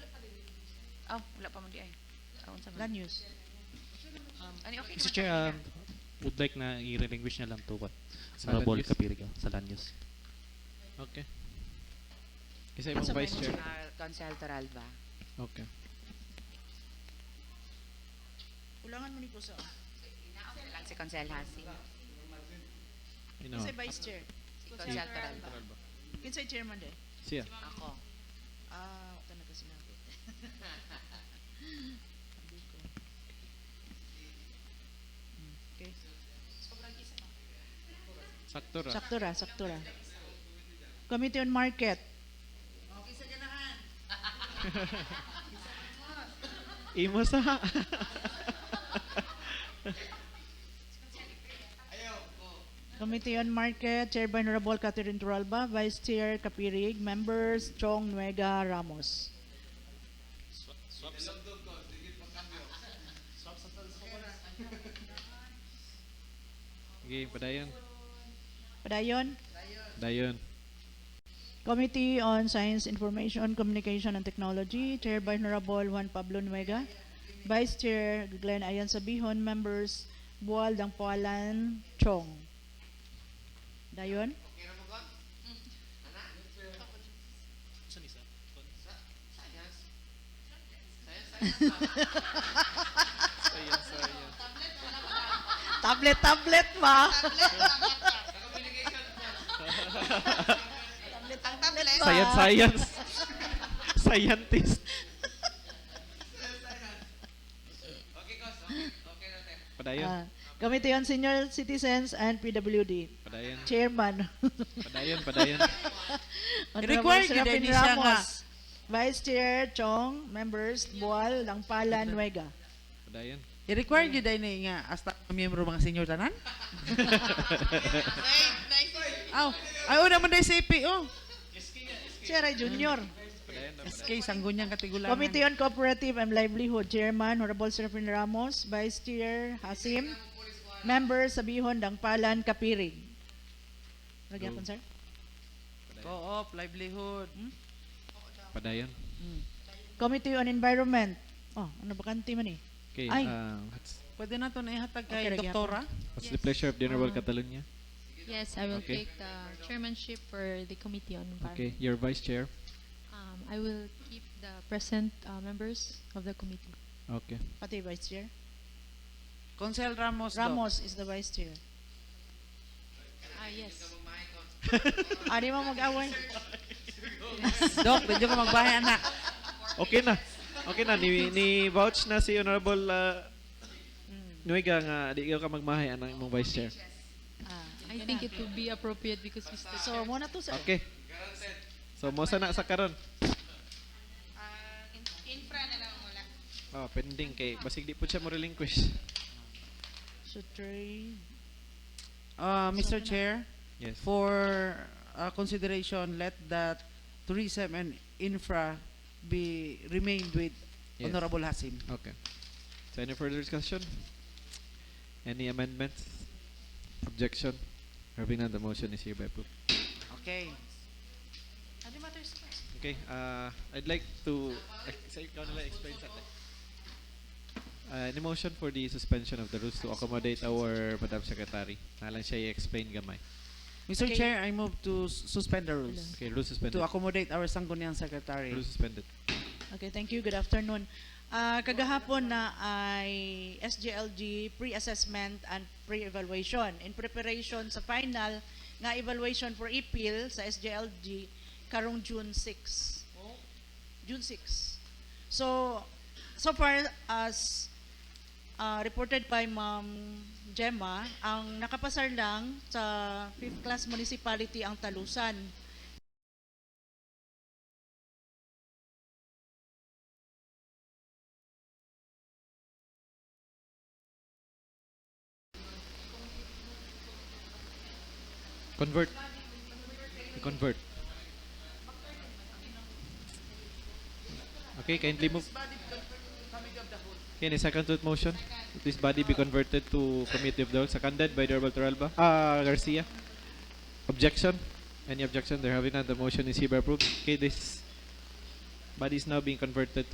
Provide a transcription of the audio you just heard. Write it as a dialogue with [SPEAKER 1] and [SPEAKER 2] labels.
[SPEAKER 1] Oh, wala pa mo di ay. Oh, unsa man.
[SPEAKER 2] Land use.
[SPEAKER 1] Ani okay
[SPEAKER 3] Mr.
[SPEAKER 1] naman.
[SPEAKER 3] Chair,
[SPEAKER 1] ang
[SPEAKER 3] um, would like na i-relinquish na lang to what?
[SPEAKER 4] Sa
[SPEAKER 3] Honorable
[SPEAKER 4] Lanyos.
[SPEAKER 3] Kapirigo, sa Lanyos.
[SPEAKER 4] Okay. Isa
[SPEAKER 1] Unsa
[SPEAKER 4] ibang
[SPEAKER 1] man
[SPEAKER 4] vice chair.
[SPEAKER 1] motion na Council Toralba?
[SPEAKER 4] Okay.
[SPEAKER 2] Kulangan mo ni ko sa...
[SPEAKER 1] Wala lang si Council Hasi.
[SPEAKER 4] Ino.
[SPEAKER 2] Kinsay vice chair.
[SPEAKER 1] Si Council Toralba.
[SPEAKER 2] Kinsay chairman de.
[SPEAKER 4] Siya.
[SPEAKER 1] Ako.
[SPEAKER 2] Ah, wala na ko sinabi. Sabi ko. Mm, Okay.
[SPEAKER 4] Sakto ra.
[SPEAKER 2] Sakto ra, sakto ra. Committee on Market.
[SPEAKER 4] Imo sa.
[SPEAKER 2] Committee on Market, Chair by Honorable Catherine Turalba, Vice Chair Kapirig, Members Chong Nuega Ramos.
[SPEAKER 4] Okay, padayon.
[SPEAKER 2] Padayon,
[SPEAKER 4] Dayon.
[SPEAKER 2] Committee on Science, Information, Communication and Technology, Chair by Honorable Juan Pablo Nuega, Vice Chair Glenn Ayan Sabihon, Members Bual Dangpualan Chong. Dayon, tablet, tablet ba?
[SPEAKER 5] Ang tablet.
[SPEAKER 4] Science, science. Scientist. Padayon.
[SPEAKER 2] Ah, Committee on Senior Citizens and PWD,
[SPEAKER 4] Padayon.
[SPEAKER 2] Chairman.
[SPEAKER 4] Padayon, padayon.
[SPEAKER 2] Required gid ni siya nga. Vice Chair Chong, members Bual, Langpala, Nuega.
[SPEAKER 4] Padayon.
[SPEAKER 6] I-require gyud ay ni nga hasta miyembro mga senior tanan. Aw, ay una man dai CPO.
[SPEAKER 2] Chair ay Junior.
[SPEAKER 4] Padayon.
[SPEAKER 6] SK sanggunyang katigulangan.
[SPEAKER 2] Committee on Cooperative and Livelihood, Chairman Honorable Serafin Ramos, Vice Chair Hasim, members Sabihon, Dangpalan, Kapirig. Lagyan ko, sir.
[SPEAKER 6] Co-op, livelihood.
[SPEAKER 4] Padayon.
[SPEAKER 2] Committee on Environment. Oh, ano ba kanti man eh?
[SPEAKER 4] Okay,
[SPEAKER 2] Ay.
[SPEAKER 4] uh, what's,
[SPEAKER 6] Pwede na to na ihatag kay
[SPEAKER 2] Okay, lagyan ko.
[SPEAKER 6] doktora.
[SPEAKER 4] what's the pleasure of the Honorable Catalonia?
[SPEAKER 7] Yes, I will
[SPEAKER 4] Okay.
[SPEAKER 7] take the chairmanship for the Committee on
[SPEAKER 4] Okay,
[SPEAKER 7] Environment.
[SPEAKER 4] your vice chair.
[SPEAKER 7] Um, I will keep the present uh, members of the committee.
[SPEAKER 4] Okay.
[SPEAKER 2] Pati Vice Chair.
[SPEAKER 6] Consel Ramos. Doc.
[SPEAKER 2] Ramos is the Vice Chair.
[SPEAKER 7] Ah, yes.
[SPEAKER 2] Ano mo mag-away?
[SPEAKER 6] Doc, medyo ka magbahay anak.
[SPEAKER 4] Okay na. Okay na ni ni vouch na si Honorable uh, Nuiga nga di ka magmahay anang imong vice chair.
[SPEAKER 2] Ah,
[SPEAKER 7] Uh, I think it would be appropriate because Mr.
[SPEAKER 2] so,
[SPEAKER 7] Chair-
[SPEAKER 2] Oh, muna to sa...
[SPEAKER 4] Okay. So mo sana sa karon.
[SPEAKER 5] Ah, in- infra na lang wala.
[SPEAKER 4] Oh, pending kay basig di po siya mo relinquish.
[SPEAKER 2] So, three.
[SPEAKER 6] Uh, Mr. Chair,
[SPEAKER 4] Yes.
[SPEAKER 6] for uh, consideration, let that tourism and infra be remained with
[SPEAKER 4] Yes.
[SPEAKER 6] Honorable Hasim.
[SPEAKER 4] Okay. So any further discussion? Any amendments? Objection? Having none, the motion is hereby approved.
[SPEAKER 6] Okay.
[SPEAKER 1] Ano matters pa?
[SPEAKER 4] Okay, uh, I'd like to say, ikaw na lang explain sa atin. Uh, an motion for the suspension of the rules to accommodate our Madam Secretary. Nalang siya i-explain gamay.
[SPEAKER 6] Mr.
[SPEAKER 2] Okay.
[SPEAKER 6] Chair, I move to s- suspend the rules
[SPEAKER 4] Okay, rules suspended.
[SPEAKER 6] to accommodate our Sangguniang Secretary.
[SPEAKER 4] Rules suspended.
[SPEAKER 2] Okay, thank you. Good afternoon. Ah, kagahapon na ay SGLG pre-assessment and pre-evaluation. In preparation sa final nga evaluation for EPIL sa SGLG karong June 6. June 6. So, so far as uh, reported by Ma'am Gemma, ang nakapasar lang sa 5th class municipality ang Talusan.
[SPEAKER 4] Convert. Convert. Okay, kindly move. Okay, any second to the motion? This body be converted to committee of the whole, seconded by Honorable Toralba, uh, Garcia. Objection? Any objection? There having none, the motion is hereby approved. Okay, this body is now being converted to